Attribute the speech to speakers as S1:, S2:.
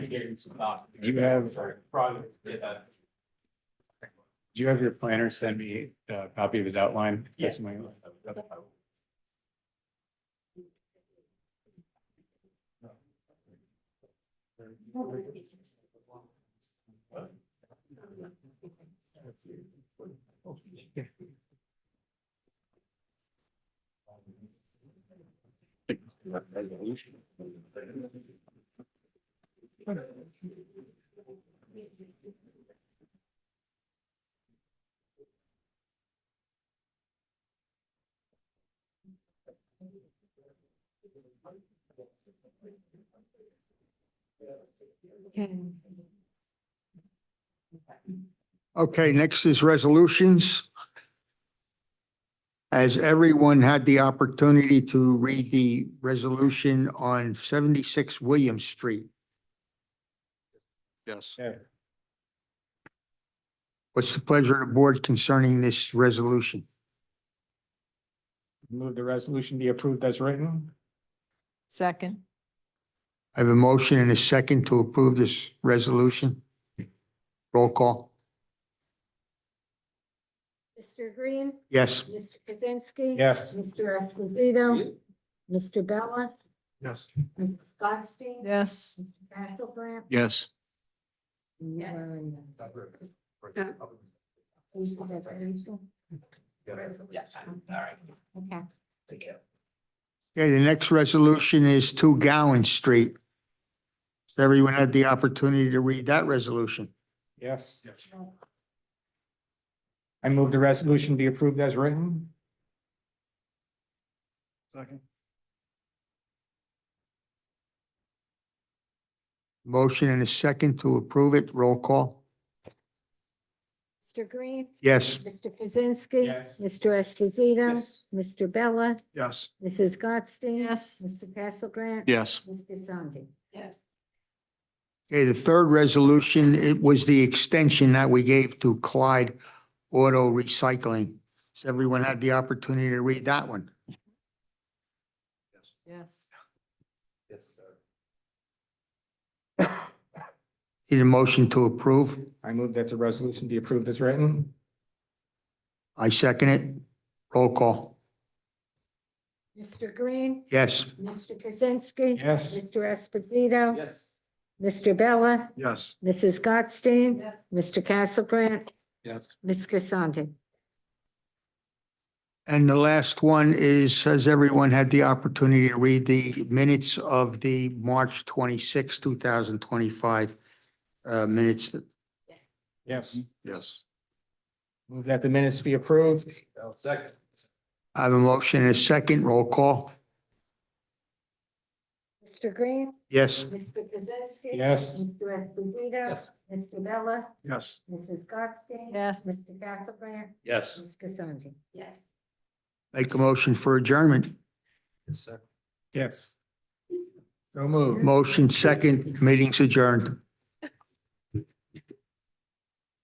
S1: You have-
S2: Probably did that.
S1: Do you have your planner send me a copy of his outline?
S2: Yes.
S1: My-
S3: Okay, next is resolutions. As everyone had the opportunity to read the resolution on seventy-six William Street.
S4: Yes.
S3: What's the pleasure of the board concerning this resolution?
S1: Move the resolution be approved as written?
S5: Second,
S3: I have a motion and a second to approve this resolution. Roll call.
S6: Mr. Green?
S3: Yes.
S6: Mr. Kaczynski?
S1: Yes.
S6: Mr. Esposito? Mr. Bella?
S4: Yes.
S6: Mrs. Gottstein?
S5: yes.
S6: Mr. Castlebrand?
S4: Yes.
S6: Yes. Who's the resolution? Resolution. Okay.
S3: Okay, the next resolution is two Gowan Street. Has Everyone had the opportunity to read that resolution.
S1: Yes. I move the resolution be approved as written?
S4: Second.
S3: Motion and a second to approve it. Roll call.
S6: Mr. Green?
S3: Yes.
S6: Mr. Kaczynski?
S1: Yes.
S6: Mr. Esposito? Mr. Bella?
S4: Yes.
S6: Mrs. Gottstein?
S5: Yes.
S6: Mr. Castlebrand?
S4: Yes.
S6: Mr. Sandi?
S5: Yes.
S3: Okay, the third resolution, it was the extension that we gave to Clyde Auto Recycling. Has everyone had the opportunity to read that one?
S5: Yes.
S2: Yes, sir.
S3: Need a motion to approve?
S1: I move that the resolution be approved as written?
S3: I second it. Roll call.
S6: Mr. Green?
S3: Yes.
S6: Mr. Kaczynski?
S1: Yes.
S6: Mr. Esposito?
S2: Yes.
S6: Mr. Bella?
S4: Yes.
S6: Mrs. Gottstein?
S5: Yes.
S6: Mr. Castlebrand?
S1: Yes.
S6: Ms. Grisanti?
S3: And the last one is, has everyone had the opportunity to read the minutes of the March 26, 2025 uh, minutes?
S1: Yes.
S4: Yes.
S1: Move that the minutes be approved?
S2: Second.
S3: I have a motion and a second. Roll call.
S6: Mr. Green?
S3: Yes.
S6: Mr. Kaczynski?
S1: Yes.
S6: Mr. Esposito?
S2: Yes.
S6: Mr. Bella?
S4: Yes.
S6: Mrs. Gottstein?
S5: Yes.
S6: Mr. Castlebrand?
S2: Yes.
S6: Ms. Grisanti? Yes.
S3: Make a motion for adjournment.
S2: Yes, sir.
S1: Yes. So moved.
S3: Motion second, meeting's adjourned.